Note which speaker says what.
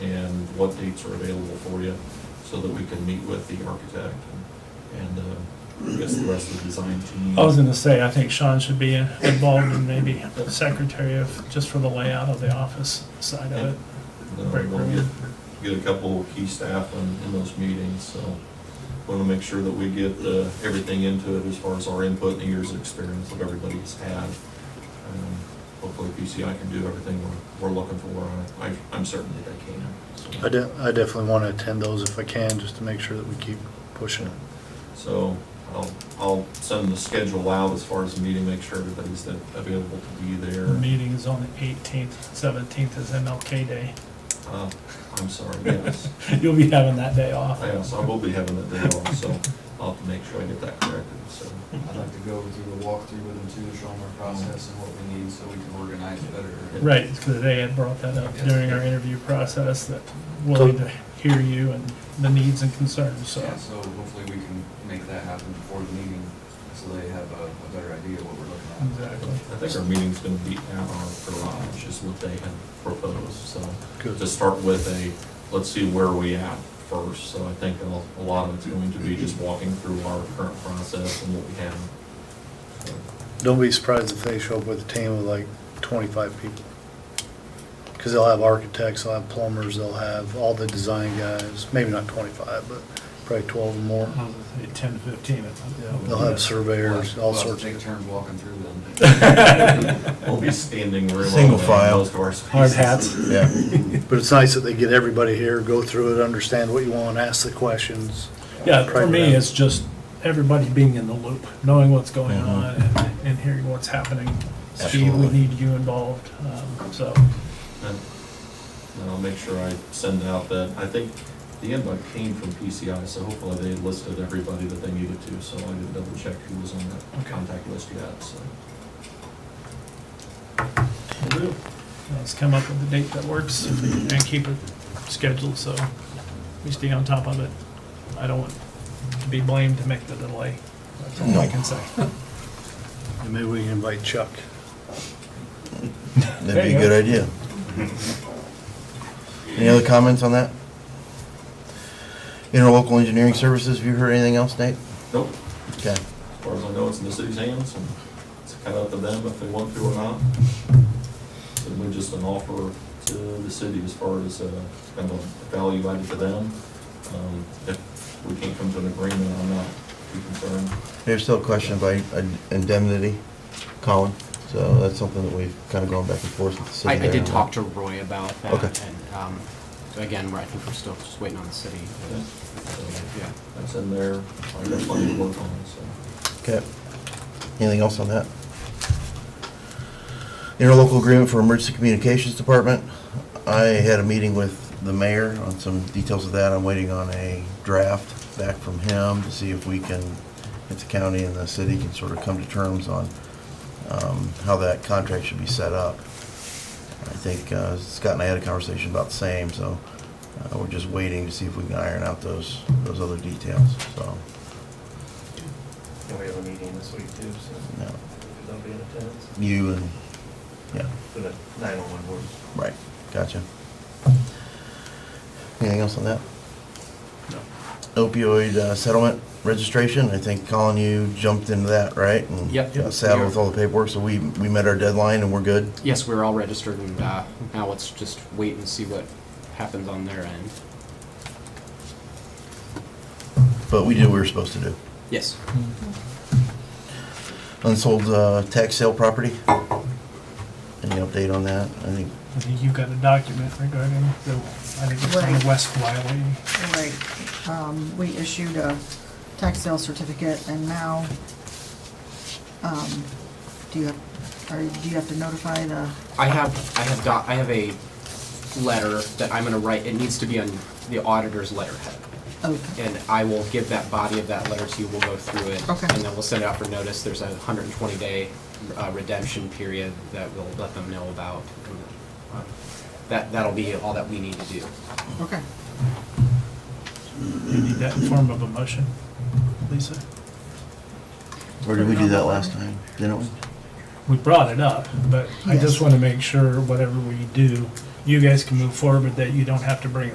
Speaker 1: what dates are available for you, so that we can meet with the architect and, and, uh, I guess the rest of the design team.
Speaker 2: I was gonna say, I think Sean should be involved in maybe secretary of, just for the layout of the office side of it.
Speaker 1: Uh, We'll get, get a couple key staff in, in those meetings, so want to make sure that we get, uh, everything into it as far as our input and the years of experience that everybody's had. Um, Hopefully PCI can do everything we're, we're looking for, I, I- I'm certain that they can. so.
Speaker 3: I de- I definitely want to attend those if I can, just to make sure that we keep pushing it.
Speaker 1: So I'll, I'll send the schedule out as far as the meeting, make sure everybody's that- available to be
Speaker 2: The
Speaker 1: there.
Speaker 2: meeting is on the eighteenth, seventeenth is MLK Day.
Speaker 1: Uh, I'm sorry, yes.
Speaker 2: You'll be having that day off.
Speaker 1: Yes, I will be having that day off, so I'll have to make sure I get that corrected, so.
Speaker 4: I'd like to go through the walkthrough with them too, show them our process and what we need so we can organize better.
Speaker 2: Right, because they had brought that up
Speaker 4: Yes.
Speaker 2: during our interview process, that willing to hear you and the needs and concerns, so.
Speaker 4: Yeah, so hopefully we can make that happen before the meeting, so they have a, a better idea of what we're looking at.
Speaker 2: Exactly.
Speaker 1: I think our meeting's gonna be at our garage is what they had proposed, so.
Speaker 3: Good.
Speaker 1: To start with a, let's see where we at first, so I think a- a lot of it's going to be just walking through our current process and what we have. So,
Speaker 3: Don't be surprised if they show up with a team of like 25 people. Because they'll have architects, they'll have plumbers, they'll have all the design guys, maybe not 25, but probably 12 or more.
Speaker 2: Uh-huh. Ten, fifteen, I
Speaker 3: Yeah, They'll have surveyors, all
Speaker 4: We'll have to
Speaker 3: sorts
Speaker 4: Take
Speaker 3: of,
Speaker 4: turns walking through them.
Speaker 1: We'll be standing room.
Speaker 5: Single
Speaker 1: on
Speaker 5: file.
Speaker 1: Most of our spaces.
Speaker 2: Hard hats.
Speaker 5: Yeah,
Speaker 3: but it's nice that they get everybody here, go through it, understand what you want, ask the questions.
Speaker 2: Yeah, for
Speaker 3: Crank it
Speaker 2: me,
Speaker 3: up.
Speaker 2: it's just everybody being in the loop, knowing what's going
Speaker 5: Mhm.
Speaker 2: on and, and hearing what's happening. Steve, we
Speaker 5: Absolutely.
Speaker 2: need you involved, um, so,
Speaker 1: And and I'll make sure I send out that, I think the invite came from PCI, so hopefully they listed everybody that they needed to, so I didn't double check who was on that
Speaker 2: Okay.
Speaker 1: contact list yet, so.
Speaker 2: let's come up with a date that works and keep it scheduled, so we stay on top of it. I don't want to be blamed to make the delay, that's all I
Speaker 5: No.
Speaker 2: can say.
Speaker 3: And maybe we can invite Chuck.
Speaker 2: There
Speaker 5: that'd be
Speaker 2: you
Speaker 5: a
Speaker 2: go.
Speaker 5: good idea. Any other comments on that? Interlocal engineering services, have you heard anything else, Nate?
Speaker 1: Nope,
Speaker 5: Okay,
Speaker 1: as far as I know, it's in the city's hands, and it's kind of up to them if they want to or not. And we're just an offer to the city as far as, uh, kind of value added to them. Um, If we can't come to an agreement, I'm not too concerned.
Speaker 5: there's still a question about indemnity, Colin, so that's something that we've kind of gone back and forth with the city.
Speaker 6: I, I
Speaker 5: there.
Speaker 6: did talk to Roy about that.
Speaker 5: Okay.
Speaker 6: And, um, so again, where I think we're still just waiting on the city.
Speaker 1: Okay. So-
Speaker 6: Yeah.
Speaker 1: That's in there, I got plenty to work on, so.
Speaker 5: Okay. Anything else on that? Interlocal agreement for emergency communications department. I had a meeting with the mayor on some details of that. I'm waiting on a draft back from him to see if we can, if the county and the city can sort of come to terms on um, how that contract should be set up. I think uh, Scott and I had a conversation about the same, so uh, we're just waiting to see if we can iron out those, those other details, so.
Speaker 7: And we have a meeting this week too, so
Speaker 5: yeah.
Speaker 7: if they'll be in attendance
Speaker 5: You and, yeah,
Speaker 7: for the 911 board.
Speaker 5: right, gotcha. Anything else on that? Opioid uh, settlement registration, I think Colin, you jumped into that, right? And
Speaker 6: Yep.
Speaker 5: got Saddled with all the paperwork, so we, we met our deadline and we're good?
Speaker 6: Yes, we're all registered and, uh, now let's just wait and see what happens on their end.
Speaker 5: But we did what we were supposed to do.
Speaker 6: Yes.
Speaker 5: Unsold uh, tax sale property? Any update on that? I think,
Speaker 2: I think you've got a document regarding the, I think it's on
Speaker 8: Right.
Speaker 2: the West Wiley.
Speaker 8: Right, um, we issued a tax sale certificate and now, um, do you, have- are, do you have to notify the,
Speaker 6: I have, I have got, I have a letter that I'm gonna write, it needs to be on the auditor's letterhead.
Speaker 8: oh, okay,
Speaker 6: And I will give that body of that letter to you, we'll go through it.
Speaker 8: Okay.
Speaker 6: And then we'll send it out for notice, there's a hundred and twenty day uh, redemption period that we'll let them know about. And, uh, That, that'll be all that we need to do.
Speaker 8: okay.
Speaker 2: You need that in form of a motion, Lisa?
Speaker 5: or did we do that last time? Didn't we?
Speaker 2: We brought it up, but I
Speaker 8: Yes.
Speaker 2: just want to make sure whatever we do, you guys can move forward, but that you don't have to bring it